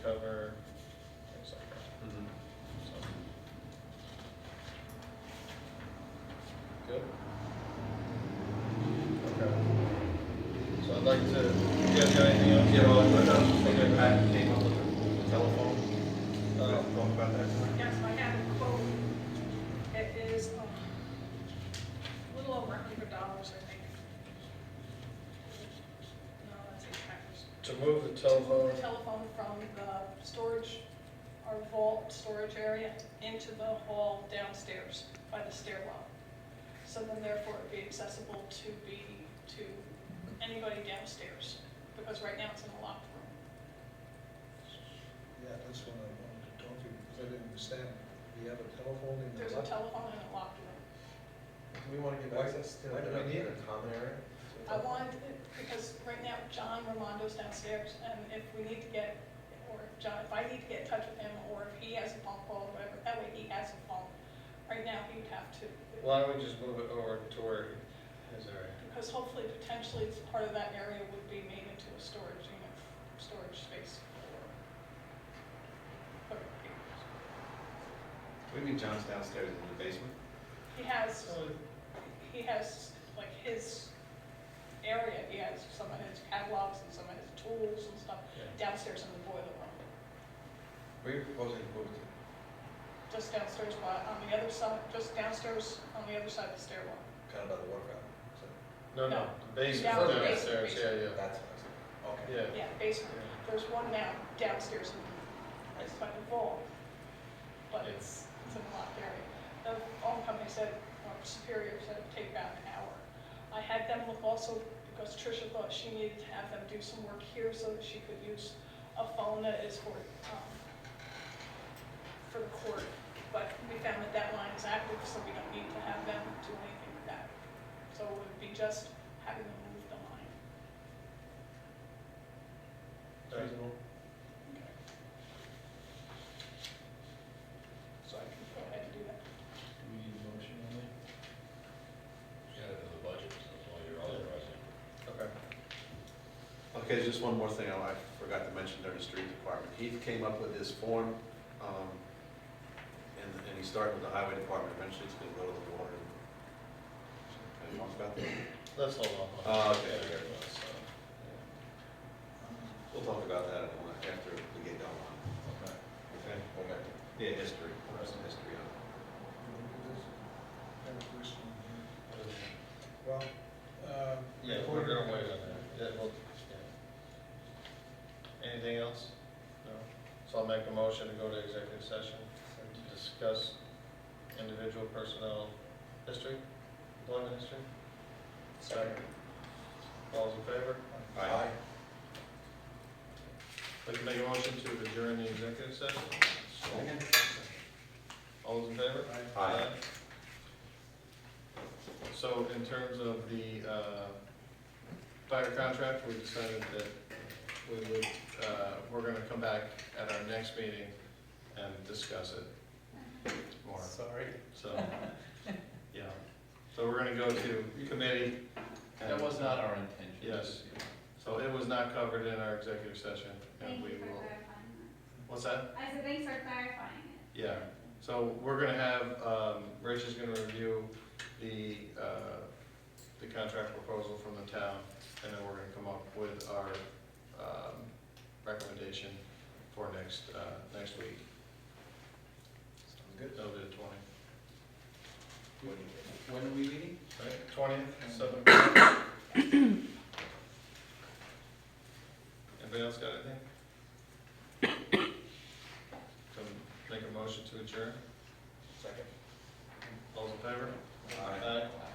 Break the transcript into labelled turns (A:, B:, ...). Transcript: A: Mm-hmm.
B: like to, you guys got anything else?
C: Yeah, well, I was thinking about came up with a telephone,
B: Uh,
C: talk about that tonight.
D: Yes, I have a quote. It is um, a little over a hundred dollars, I think. No, that's eight packers.
B: To move the
D: To move
B: telephone,
D: the telephone from the storage, our vault storage area into the hall downstairs by the stairwell. So then therefore it'd be accessible to be, to anybody downstairs, because right now it's in a locked room.
A: Yeah, that's what I wanted to talk to you, because I didn't understand. We have a telephone in
D: There's
A: the
D: a
A: left.
D: telephone in a locked room.
C: Do we want to give
A: Why-
C: access to
A: why do we
C: another
A: need
C: a
A: it?
C: common area?
D: I wanted, because right now John Romondo's downstairs, and if we need to get, or if John, if I need to get in touch with him, or if he has a phone call, or whatever, that way he has a phone. Right now, he would have to,
B: why don't we just move it over to where his area?
D: because hopefully, potentially, it's part of that area would be made into a storage unit, storage space for. for people.
C: We need John's downstairs in the basement.
D: He has, he has, like, his area, he has some of his catalogs and some of his tools and stuff downstairs in the boiler room.
C: Where are you proposing to move to?
D: Just downstairs, but on the other side, just downstairs, on the other side of the stairwell.
C: Kind of by the water fountain. So
B: No, no,
D: No.
B: the basement
D: Down the basement,
B: downstairs, yeah,
C: that's what I said. Okay.
B: yeah, yeah.
D: Yeah, basement. There's one now downstairs in,
C: I
D: it's
C: see.
D: by the vault, but it's, it's in a locked area. The phone company said, or Superior said it'd take about an hour. I had them look also, because Tricia thought she needed to have them do some work here so that she could use a phone that is for, um, for the court. But we found that that line is active, so we don't need to have them do anything with that. So it would be just having them move the line.
B: Right.
C: Reasonable.
D: So I can go ahead and do that.
E: Do we need a motion on that? Yeah, to the budget, so that's all you're authorizing.
B: Okay.
C: Okay, there's just one more thing I I forgot to mention during the street department. Heath came up with this form, um, and, and he started with the highway department, eventually it's gonna go to the water. Can you talk about that?
B: Let's hold on.
C: Oh, okay.
B: Yeah, so,
C: We'll talk about that in a moment after we get going on.
B: Okay.
C: Okay. Okay. Yeah, history, there's some history on it.
A: Got a question here.
B: yeah.
A: Well, uh.
B: Yeah, we're gonna wait on that, yeah, well, yeah. Anything else? No? So I'll make a motion to go to executive session to discuss individual personnel history, employment history. Second. All's in favor?
C: Aye.
B: Like to make a motion to adjourn the executive session? All those in favor?
C: Aye.
B: So in terms of the uh, fire contract, we decided that we would, uh, we're gonna come back at our next meeting and discuss it more,
C: Sorry.
B: so, yeah. So we're gonna go to committee. and-
E: That was not our intention.
B: Yes. So it was not covered in our executive session, and
F: Thank
B: we
F: you for
B: will,
F: clarifying
B: what's that?
F: that. I said, thanks for clarifying it.
B: Yeah, so we're gonna have, um, Rich is gonna review the, uh, the contract proposal from the town, and then we're gonna come up with our, um, recommendation for next, uh, next week.
A: good.
B: That'll be the twentieth,
E: When are we meeting?
B: right, twentieth, seven. Anybody else got anything? Can make a motion to adjourn,
C: Second.
B: all's in favor?
C: Aye.
B: Aye.
E: Aye.